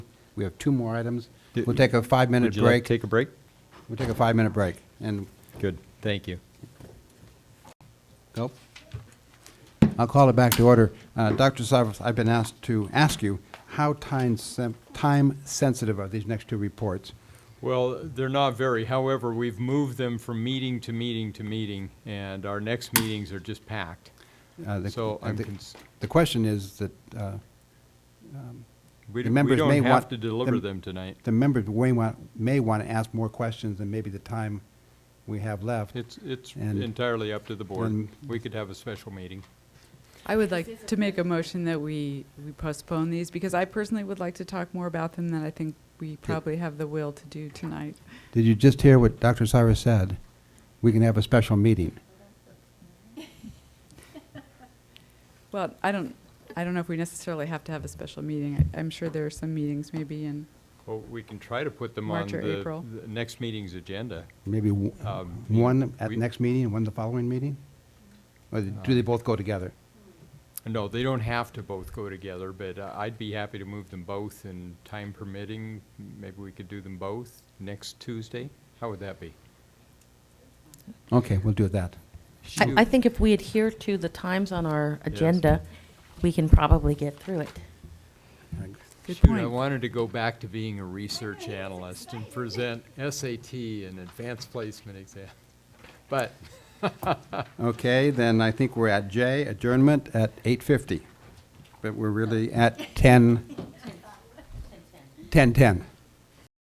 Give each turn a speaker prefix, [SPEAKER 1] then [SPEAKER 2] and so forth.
[SPEAKER 1] We have two more items.
[SPEAKER 2] Did-
[SPEAKER 1] We'll take a five-minute
[SPEAKER 2] Would you like
[SPEAKER 1] break.
[SPEAKER 2] to take a break?
[SPEAKER 1] We'll take a five-minute break. And,
[SPEAKER 2] Good, thank you.
[SPEAKER 1] nope. I'll call it back to order. Uh, Dr. Sarver, I've been asked to ask you, how time sen- time-sensitive are these next two reports?
[SPEAKER 3] Well, they're not very. However, we've moved them from meeting to meeting to meeting, and our next meetings are just packed.
[SPEAKER 1] Uh, the-
[SPEAKER 3] So I'm
[SPEAKER 1] the-
[SPEAKER 3] cons-
[SPEAKER 1] The question is that uh,
[SPEAKER 3] We
[SPEAKER 1] The
[SPEAKER 3] d- we
[SPEAKER 1] members may
[SPEAKER 3] don't
[SPEAKER 1] want
[SPEAKER 3] have to deliver
[SPEAKER 1] them-
[SPEAKER 3] them tonight.
[SPEAKER 1] the members may want, may want to ask more questions than maybe the time we have left.
[SPEAKER 3] It's, it's
[SPEAKER 1] And-
[SPEAKER 3] entirely up to the board.
[SPEAKER 1] and-
[SPEAKER 3] We could have a special meeting.
[SPEAKER 4] I would like to make a motion that we, we postpone these, because I personally would like to talk more about them than I think we probably have the will to do tonight.
[SPEAKER 1] Did you just hear what Dr. Cyrus said? We can have a special meeting.
[SPEAKER 4] Well, I don't, I don't know if we necessarily have to have a special meeting. I- I'm sure there are some meetings maybe in,
[SPEAKER 3] Well, we can try to put them on
[SPEAKER 4] March or
[SPEAKER 3] the,
[SPEAKER 4] April.
[SPEAKER 3] the next meeting's agenda.
[SPEAKER 1] Maybe w-
[SPEAKER 3] Um,
[SPEAKER 1] one at
[SPEAKER 3] we- Uh,
[SPEAKER 1] next meeting and one the following meeting? Or do they both go together?
[SPEAKER 3] No, they don't have to both go together, but uh, I'd be happy to move them both, and time permitting, maybe we could do them both next Tuesday? How would that be?
[SPEAKER 1] Okay, we'll do that.
[SPEAKER 5] I, I think if we adhere to the times on our agenda, we can probably get through it.
[SPEAKER 4] good
[SPEAKER 3] Shoot, I
[SPEAKER 4] point.
[SPEAKER 3] wanted to go back to being a research analyst and present SAT and advanced placement exam. But
[SPEAKER 1] Okay, then I think we're at J, adjournment at 8:50. But we're really at 10, 10:10.